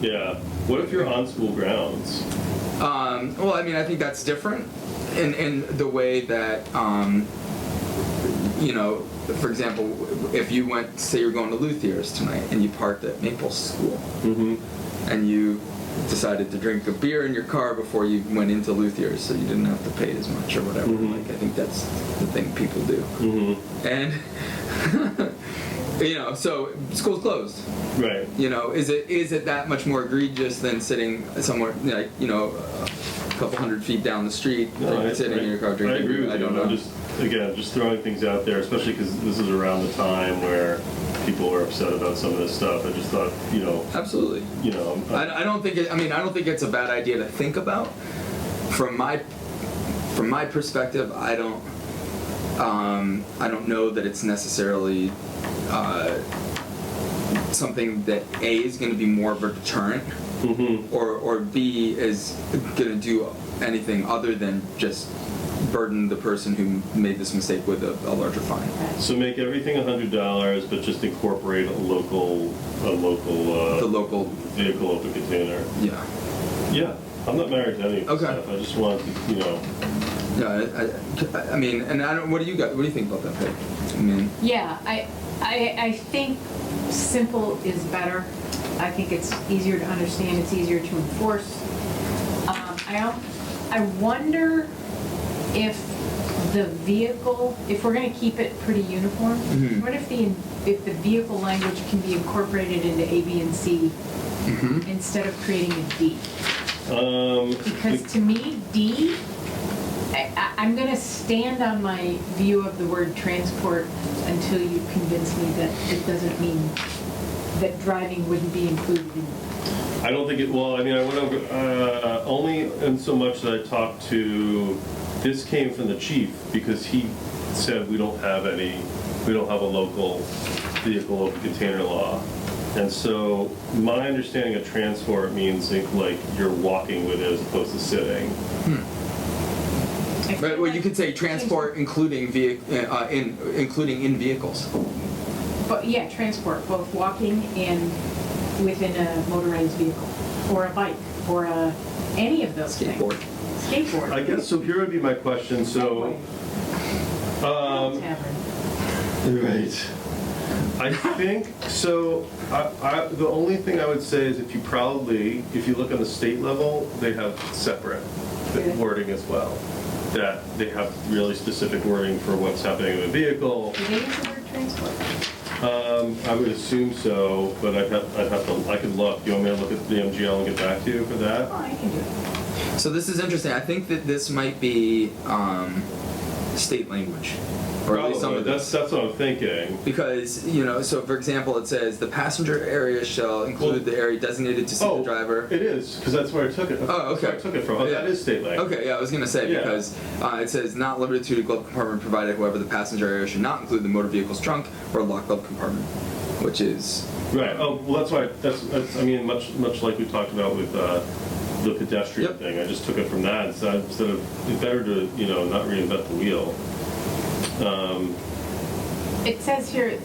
Yeah. What if you're on school grounds? Um, well, I mean, I think that's different in, in the way that, um, you know, for example, if you went, say you're going to Luthier's tonight and you parked at Maple School Mm-hmm. and you decided to drink a beer in your car before you went into Luthier's so you didn't have to pay as much or whatever. Mhm. Like, I think that's the thing people do. Mm-hmm. And, you know, so school's closed. Right. You know, is it is it that much more egregious than sitting somewhere like you know a couple hundred feet down the street, like, I- sitting I- in your car drinking? I agree beer? with I you. don't know. I'm just again just throwing things out there, especially because this is around the time where people were upset about some of this stuff. I just thought, you know, Absolutely. you know, um, I'm- I, I don't think it, I mean I don't think it's a bad idea to think about. From my from my perspective, I don't um, I don't know that it's necessarily uh, something that a is going to be more of a deterrent. Mhm. or or B is gonna do anything other than just burden the person who made this mistake with a, a larger fine. So make everything hundred dollars, but just incorporate a local, a local uh, The local, vehicle open container. yeah, Yeah, I'm not married to any of this Okay. stuff. I just wanted to, you know, yeah. I, I, I mean, and I don't. What do you got? What do you think about that? Peg? I mean, Yeah, I, I, I think simple is better. I think it's easier to understand, it's easier to enforce. Um, I don't, I wonder if the vehicle, if we're gonna keep it pretty uniform, Mhm. what if the, if the vehicle language can be incorporated into A, B, and C hmm instead of creating a D? um, Because to me, D, I, I, I'm gonna stand on my view of the word transport until you convince me that it doesn't mean that driving wouldn't be included in. I don't think it. Well, I mean, I went over uh, only in so much that I talked to. This came from the chief because he said we don't have any, we don't have a local vehicle open container law, and so my understanding of transport means like you're walking with it as opposed to sitting. I feel but well, you like- could say transport, including vehicle, uh, in including in vehicles. But, yeah, transport, both walking and within a motorized vehicle, or a bike, or a, any of those things. Skateboard. Skateboard. I guess so. Here would be my question. So, um, Tavern. Right. I think so. I, I, the only thing I would say is if you probably, if you look on the state level, they have separate Yeah. wording as well. That they have really specific wording for what's happening in a vehicle. Do they use the word transport? Um, I would assume so, but I'd have, I'd have to, I could look. You want me to look at the MGL and get back to you for Oh, that? I can do it. So this is interesting. I think that this might be um, state language, or at least some Probably. of That's, this. that's what I'm thinking. Because, you know, so for example, it says the passenger area shall include the area designated to seat the driver. Oh, It is, because that's where I took it. Oh, That's where I okay. took it from. Oh, that Yeah. is state language. Okay, yeah, I was gonna say Yeah. because uh, it says not limited to the glove compartment provided, however, the passenger area should not include the motor vehicle's trunk or locked glove compartment, which is Right. Oh, well, that's why. That's, that's. I mean, much much like we talked about with uh, the pedestrian Yep. thing. I just took it from that instead of, instead of it's better to you know not reinvent the wheel. Um, It says here,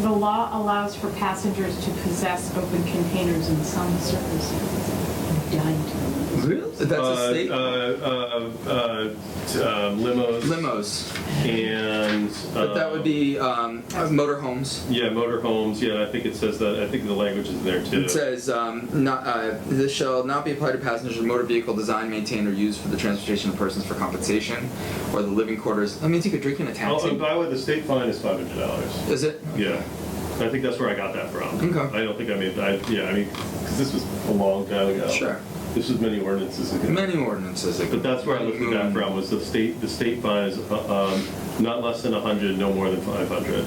the law allows for passengers to possess open containers in some circumstances. I'm dying to know. really that's uh, a state Uh, uh, uh, t- uh, limos. limos, And. but that would um, be um, motor homes. Yeah, motorhomes. Yeah, I think it says that. I think the language is there too. It says, um, not, uh, this shall not be applied to passengers of motor vehicle designed, maintained, or used for the transportation of persons for compensation, or the living quarters. That means you could drink in a oh, and taxi. by the way, the state fine is five hundred dollars. Is it? Yeah, I think that's where I got that from. Okay. I don't think I made that. Yeah, I mean, because this was a long time ago. Sure. This was many ordinances ago. Many ordinances. that- But that's where I looked at that from. Was the state the state fine is uh, um, not less than hundred, no more than five hundred.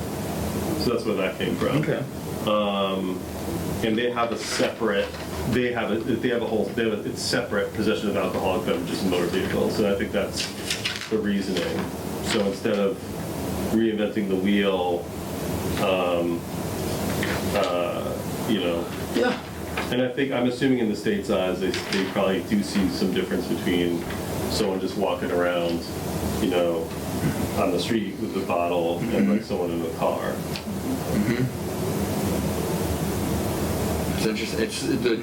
So that's where that came from. Okay. Um, and they have a separate. They have a. They have a whole. They have a, it's separate possession of alcoholic beverages and motor vehicles. And I think that's the reasoning. So instead of reinventing the wheel, um, uh, you know, Yeah. and I think, I'm assuming in the state's eyes, they, they probably do see some difference between someone just walking around, you know, on the street with a bottle and like someone in a car. It's interesting. It's the